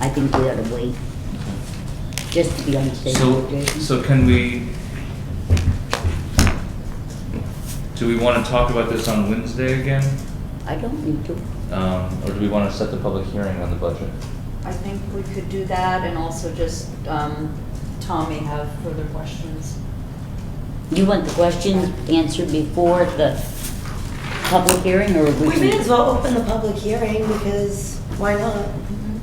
I think we ought to wait, just to be on the same So, page. so can we, do we want to talk about this on Wednesday again? I don't need to. Um, Or do we want to set the public hearing on the budget? I think we could do that and also just, um, Tom may have further questions. You want the questions answered before the public hearing, or we We can? may as well open the public hearing because why not?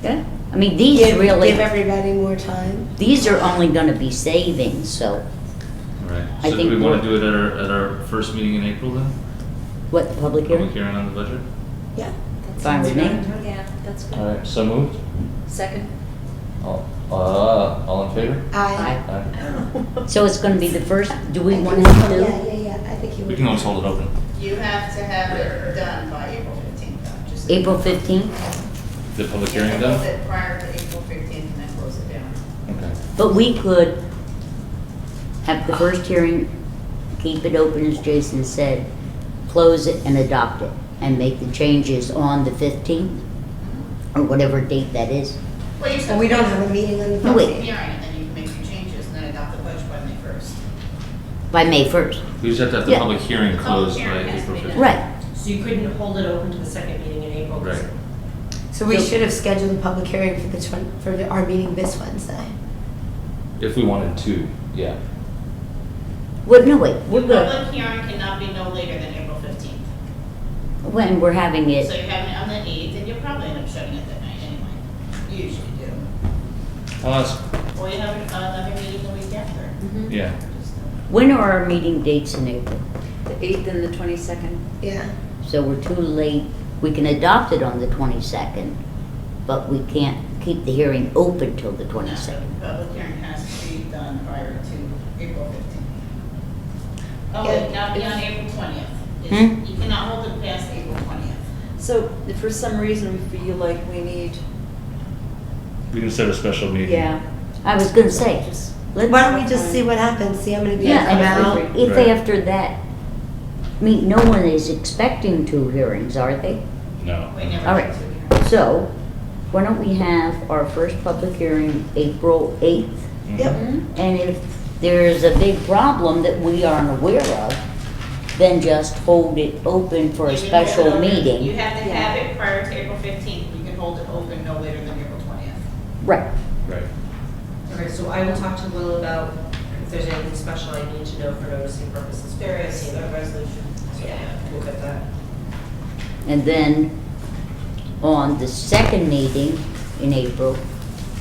Yeah, I mean, these Give- really, Give everybody more time. these are only gonna be savings, so, Right. I So do we think want to do we'll- it at our, at our first meeting in April then? what, the public Public hearing? hearing on the budget? Yeah. That Fine sounds with me. good. Yeah, that's good. All right, so moved? Second? All, uh, all in favor? I. Aye. So it's gonna be the first, do we wanna Yeah, do? yeah, yeah, I think you would. We can always hold it open. You have to have it done by April fifteenth, though, just. April fifteenth? The public You have hearing to close done? it prior to April fifteenth and then close it down. Okay. But we could have the first hearing, keep it open as Jason said, close it and adopt it, and make the changes on the fifteenth, Mm-hmm. or whatever date that is. Well, you And said. we don't have a meeting on the. Oh, No, wait. Hearing, and then you can make your changes and then adopt the budget by May first. By May first. We just have to have the Yeah. public hearing Public closed by hearing has to April be done. fifteenth. Right, So you couldn't hold it open to the second meeting in April? Right. So we should have scheduled the public hearing for the twen, for the- our meeting this Wednesday. If we wanted to, yeah. well, no, wait, The we're good, public hearing cannot be no later than April fifteenth. when we're having So it. you're having it on the eighth, and you'll probably end up shutting it that night anyway. You usually do. I'll ask, Or you have another meeting the week after. Mm-hmm. yeah. Just- When are our meeting dates in April? The eighth and the twenty-second. Yeah. So we're too late, we can adopt it on the twenty-second, but we can't keep the hearing open till the No, the twenty-second. Public hearing has to be done prior to April fifteenth. Oh, wait, not beyond April Hmm? twentieth. You cannot hold it past April twentieth. So if for some reason we feel like we need, We can set a special meeting. yeah, I was gonna say, just, let's. Why don't we just see what happens, see how many people Yeah, come out? and if- if Right. after that, I mean, no one is expecting two hearings, are they? No. We never All did right. two hearings. So, why don't we have our first public hearing April eighth? Mhm. Yep. Mm-hmm. And if there's a big problem that we aren't aware of, then just hold it open for a You can hold it special open- meeting. You have to Yeah. have it prior to April fifteenth. You can hold it open no later than April twentieth. Right, Right. All right, so I will talk to Will about if there's anything special I need to know for noticing purposes. There is a resolution. So, Yeah, we'll get that. and then on the second meeting in April,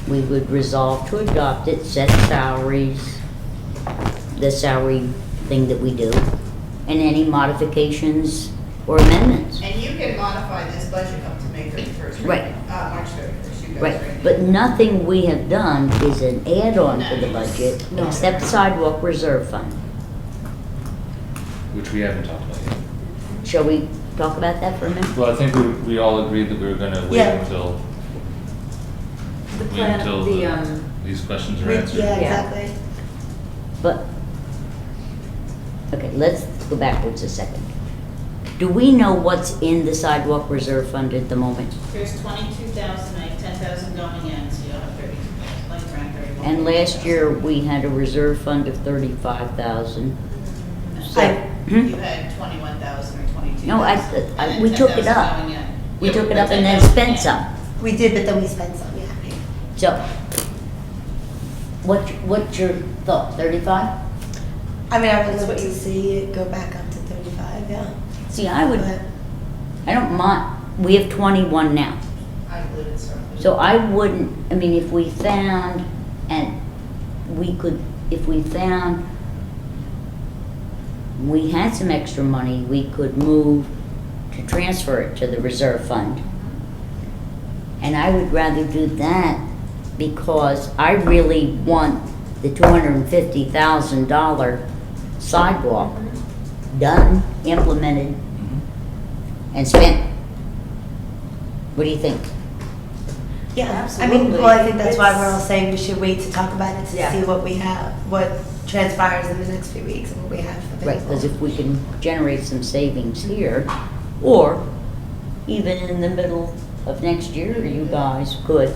we would resolve to adopt it, set salaries, the salary thing that we do, and any modifications or amendments. And you can modify this budget up to May thirty-first. Right. Uh, March thirty-first, you guys. Right, but nothing we have done is an add-on to the budget, No. except sidewalk reserve fund. Which we haven't talked about yet. Shall we talk about that for a minute? Well, I think we, we all agreed that we were gonna wait Yeah. until, the wait plan, until the, the, um, these questions are Yeah, answered. exactly. But, okay, let's go backwards a second. Do we know what's in the sidewalk reserve fund at the moment? There's twenty-two thousand, like ten thousand going in, so you'll have thirty-two thousand, like around thirty-one. And last year, we had a reserve fund of thirty-five thousand. No. I- You had twenty-one thousand or twenty-two thousand. Hmm? No, I- I- we took it up. We took it up and then spent some. We did, but then we spent some, yeah. So, what, what's your thought, thirty-five? I mean, I would love to see it go back up to thirty-five, yeah. See, I would, But- I don't mind, we have twenty-one now. I included some. So I wouldn't, I mean, if we found, and we could, if we found we had some extra money, we could move to transfer it to the reserve fund. And I would rather do that because I really want the two hundred and fifty thousand dollar sidewalk done, implemented, Mhm. and spent. What do you think? Yeah, I mean, Absolutely. well, I think that's why we're It's- all saying we should wait to talk about it to Yeah. see what we have, what transpires in the next few weeks and what we have Right, because available. if we can generate some savings here, or even in the middle of next year, you guys could